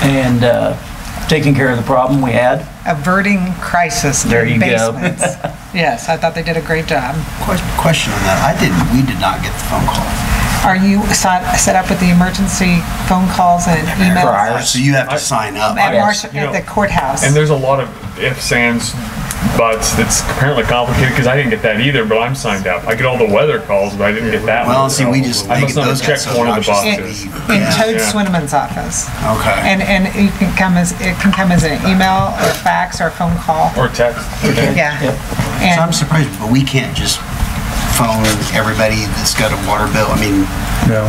and uh, taking care of the problem we had. averting crisis There you in go. basements. Yes, I thought they did a great job. Ques- Question on that, I didn't, we did not get the phone call. Are you set, set up with the emergency phone calls and emails So you have to sign up. at Marsh, you at know, the courthouse? And there's a lot of ifs, ands, buts that's apparently complicated because I didn't get that either, but I'm signed up. I get all the weather calls, but I didn't get that one. Well, see, we just, I they- must not those got have checked so one of the obnoxious that boxes. we- In yeah. Toad yeah. Swinneman's office. Okay. And, and it can come as, it can come as an email or fax or a phone call. Or text. Yeah. Yep. So I'm And surprised, but we can't just phone everybody that's got a water bill. I mean, No.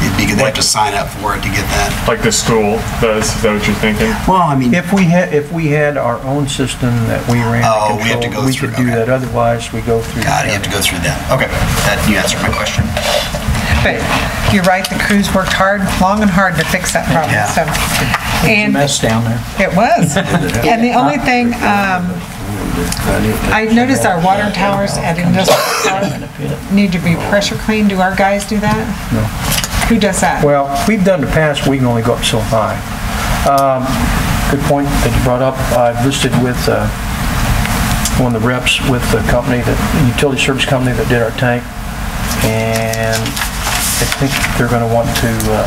it'd be, they have to sign up for it to get that. Like the school does, is that what you're thinking? Well, I mean, If we had, if we had our own system that we ran Oh, we to have to control, go we through, could do okay. that, otherwise we go through. the God, you have to county. go through that. Okay, that, you answered my question. but you're right, the crews worked hard, long and hard to fix that problem, Yeah. so. And Mess down there. It was. And the only thing, um, I noticed our water towers at Industrial Park need to be pressure cleaned. Do our guys do that? No. Who does that? Well, we've done the past, we can only go up so high. Um, Good point that you brought up. I've listed with uh, one of the reps with the company, that utility service company that did our tank, and I think they're going to want to uh,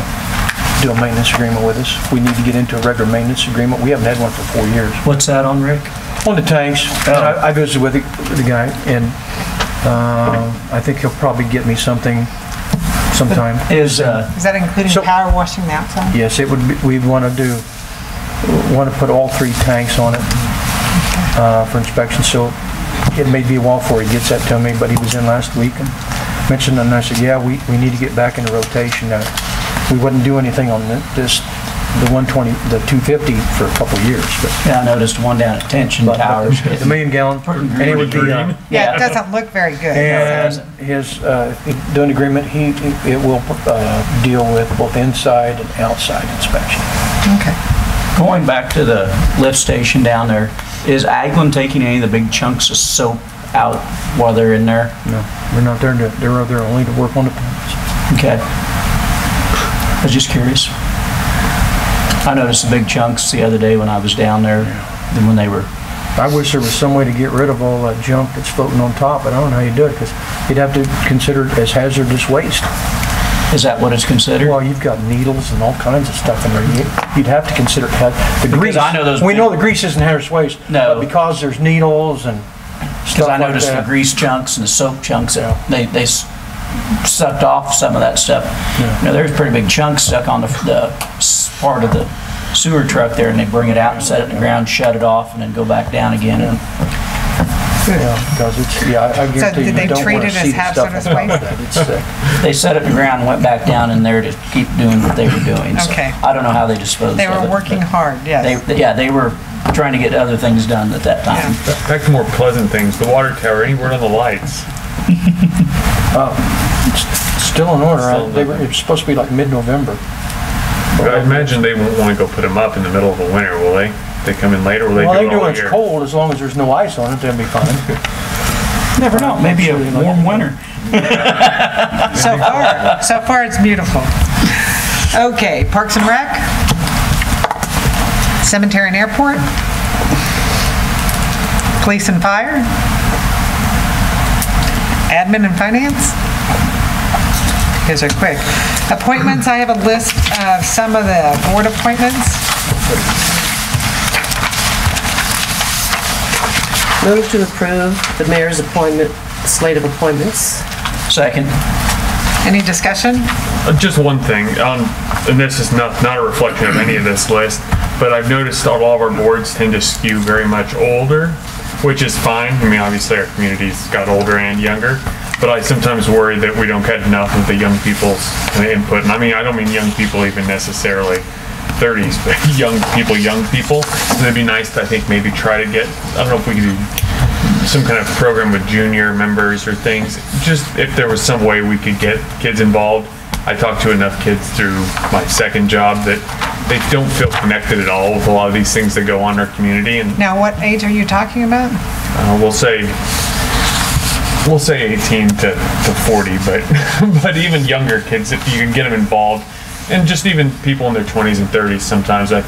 do a maintenance agreement with us. We need to get into a regular maintenance agreement. We haven't had one for four years. What's that on, Rick? On the tanks, and I I visited with the with the guy, and um, I think he'll probably get me something sometime. Is, uh, Is that including So- power washing the outside? Yes, it would, be- we'd want to do, want to put all three tanks on it uh, for inspection, so it may be a while before he gets that to me, but he was in last week and mentioned, it, and I said, yeah, we, we need to get back into rotation. Uh, We wouldn't do anything on the- this, the 120, the 250 for a couple of years, but yeah, I noticed one down at Tension Towers. the million gallon, and it would be, uh, Yeah, it doesn't look very good. and his, uh, doing agreement, he, he- it will uh, deal with both inside and outside inspection. Okay. Going back to the lift station down there, is Aglin taking any of the big chunks of soap out while they're in there? No, we're not there to, they're there only to work on the pumps. Okay. I was just curious. I noticed the big chunks the other day when I was down there, than when they were, I wish there was some way to get rid of all that junk that's floating on top, but I don't know how you do it, because you'd have to consider it as hazardous waste. is that what it's considered? Well, you've got needles and all kinds of stuff in there, You- you'd have to consider it has, the grease. Because I know those We big- know the grease isn't hazardous waste. No. But because there's needles and stuff Because I like noticed the that. grease chunks and the soap chunks, Yeah. they, they s- sucked off some of that stuff. Yeah. You know, there's pretty big chunks stuck on the, the s- part of the sewer truck there, and they bring it out and set it in the ground, shut it off, and then go back down again. And Yeah, because it's, yeah, I- I guarantee you, did they you don't treat want to it as see the stuff on hazardous top waste? of that, it's sick. They set it in the ground and went back down in there to keep doing what they were doing. So Okay. I don't know how they disposed of it. They were but working hard, They, yes. yeah, they were trying to get other things done at that time. Back to more pleasant things, the water tower, any word on the lights? Still in order, I- Still they were, it's supposed to be like mid-November. I imagine they won't want to go put them up in the middle of the winter, will they? They come in later, will they do Well, it they do all when it's year? cold, as long as there's no ice on it, they'll be fine. Never know, maybe a warm winter. So far, so far it's beautiful. Okay, Parks and Rec? Cemetery and Airport? Police and Fire? Admin and Finance? These are quick. Appointments, I have a list of some of the board appointments. Move to approve the mayor's appointment, slate of appointments. Second, Any discussion? Uh, Just one thing, um, and this is not, not a reflection of any of this list, but I've noticed a lot of our boards tend to skew very much older, which is fine. I mean, obviously our community's got older and younger, but I sometimes worry that we don't get enough of the young people's kinda input. And I mean, I don't mean young people even necessarily thirties, but young people, young people. So it'd be nice to, I think, maybe try to get, I don't know if we could do some kind of program with junior members or things. Just if there was some way we could get kids involved. I talked to enough kids through my second job that they don't feel connected at all with a lot of these things that go on in our community. And Now, what age are you talking about? uh, we'll say, we'll say 18 to, to 40, but but even younger kids, if you can get them involved, and just even people in their 20s and 30s, sometimes I